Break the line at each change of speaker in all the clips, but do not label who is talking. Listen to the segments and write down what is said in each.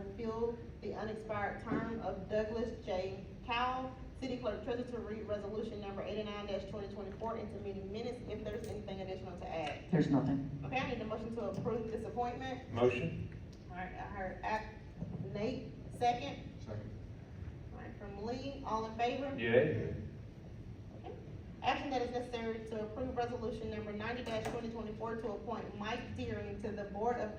renewal the unexpired term of Douglas J. Cowell, city clerk treasurer to read resolution number eighty-nine twenty twenty-four into meeting minutes if there's anything additional to add.
There's nothing.
Okay, I need a motion to approve this appointment.
Motion?
Alright, I heard act, Nate, second,
Second.
alright, from Lee, all in favor?
Yay.
Action that is necessary to approve resolution number ninety twenty twenty-four to appoint Mike Deering to the Board of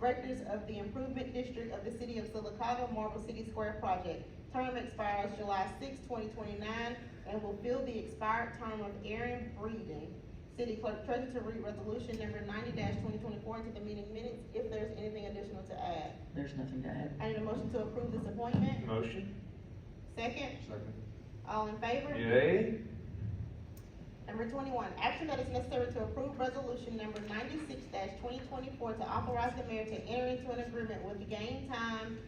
Directors of the Improvement District of the City of Silicaca Marble City Square Project. Term expires July 6, twenty twenty-nine, and will fill the expired term of Aaron Breeden. City Clerk Treasurer to read resolution number ninety twenty twenty-four into the meeting minutes if there's anything additional to add.
There's nothing to add.
I need a motion to approve this appointment.
Motion?
Second,
Second.
all in favor?
Yay.
Number twenty-one, action that is necessary to approve resolution number ninety-six twenty twenty-four to authorize the mayor to enter into an agreement with Game Time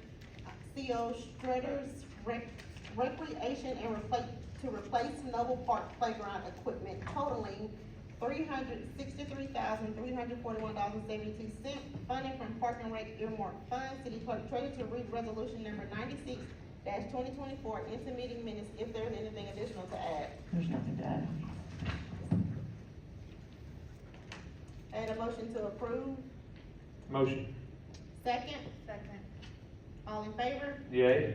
uh, CO Strutters Rec- Recreation and replace, to replace Noble Park Playground equipment totaling three hundred sixty-three thousand, three hundred forty-one dollars and seventy-two cents, funding from Park and Rec earmark fund, city clerk treasurer to read resolution number ninety-six twenty twenty-four into meeting minutes if there is anything additional to add.
There's nothing to add.
I had a motion to approve,
Motion?
second,
Second.
all in favor?
Yay.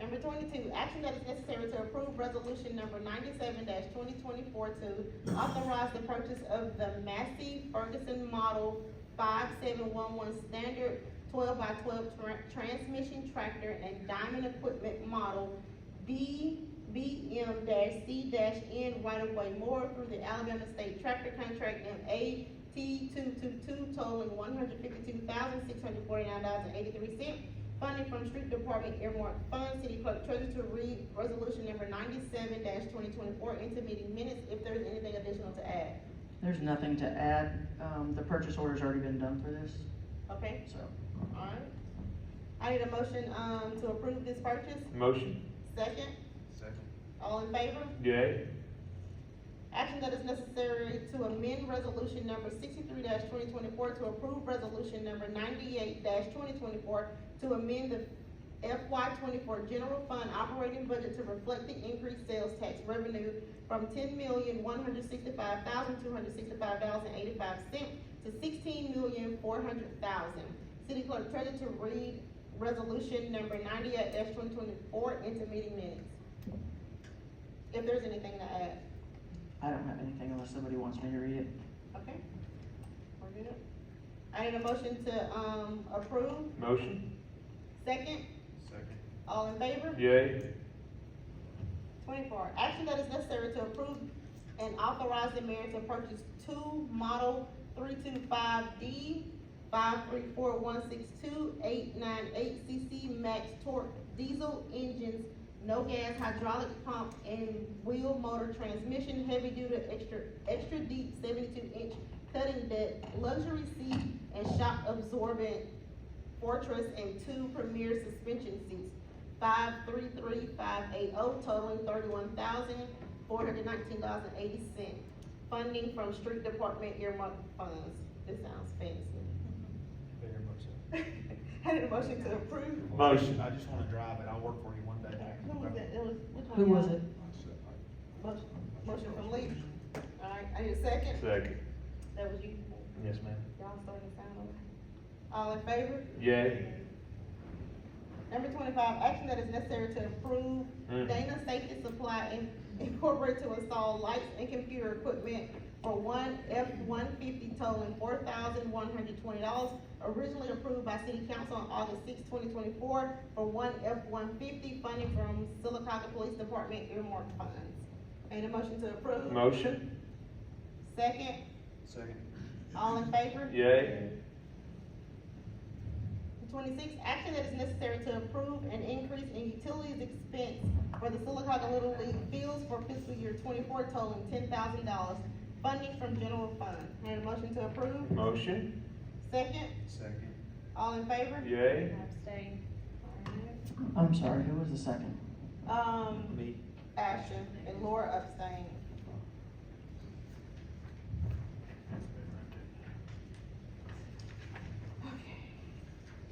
Number twenty-two, action that is necessary to approve resolution number ninety-seven twenty twenty-four to authorize the purchase of the Massey Ferguson Model five seven one one standard twelve by twelve tra- transmission tractor and diamond equipment model B B M C N right-of-way more through the Alabama State Tractor Contract M A T two two two totaling one hundred fifty-two thousand six hundred forty-nine dollars and eighty-three cents Funding from street department earmark fund, city clerk treasurer to read resolution number ninety-seven twenty twenty-four into meeting minutes if there's anything additional to add,
There's nothing to add. Um, the purchase order's already been done for this,
okay?
so.
Alright. I need a motion, um, to approve this purchase,
Motion?
second,
Second.
all in favor?
Yay.
Action that is necessary to amend resolution number sixty-three twenty twenty-four to approve resolution number ninety-eight twenty twenty-four to amend the FY twenty-four general fund operating budget to reflect the increased sales tax revenue from ten million, one hundred sixty-five thousand, two hundred sixty-five dollars and eighty-five cents to sixteen million, four hundred thousand. City clerk treasurer to read resolution number ninety-eight twenty twenty-four into meeting minutes. If there's anything to add.
I don't have anything unless somebody wants me to read it.
Okay. We're good. I need a motion to, um, approve,
Motion?
second,
Second.
all in favor?
Yay.
Twenty-four, action that is necessary to approve and authorize the mayor to purchase two model three-two-five D five-three-four-one-six-two-eight-nine-eight CC max torque diesel engines, no gas hydraulic pump and wheel motor transmission, heavy duty, extra, extra deep seventy-two inch cutting deck, luxury seat and shock absorbent fortress and two premier suspension seats five three three five eight oh, totaling thirty-one thousand, four hundred nineteen dollars and eighty cents. Funding from street department earmark funds. This sounds fancy.
Very much so.
I need a motion to approve.
Motion.
I just wanna drive it, I'll work for you one day.
Who was it? It was, which one?
Who was
y'all?
it?
Motion- Motion from Lee. Alright, I need a second.
Second.
That was you.
Yes, ma'am.
Y'all starting to sound okay. All in favor?
Yay.
Number twenty-five, action that is necessary to approve
Mm.
Dana Safety Supply Inc- Incorporated to install lights and computer equipment for one F one fifty totaling four thousand one hundred twenty dollars, originally approved by city council on August 6, twenty twenty-four, for one F one fifty funding from Silicaca Police Department earmark funds. Need a motion to approve?
Motion?
Second,
Second.
all in favor?
Yay.
Twenty-six, action that is necessary to approve an increase in utilities expense for the Silicaca Little League fields for fiscal year twenty-four totaling ten thousand dollars, funding from general fund. Need a motion to approve?
Motion?
Second,
Second.
all in favor?
Yay.
Abstain.
I'm sorry, who was the second?
Um,
Me.
Ashton and Laura abstain.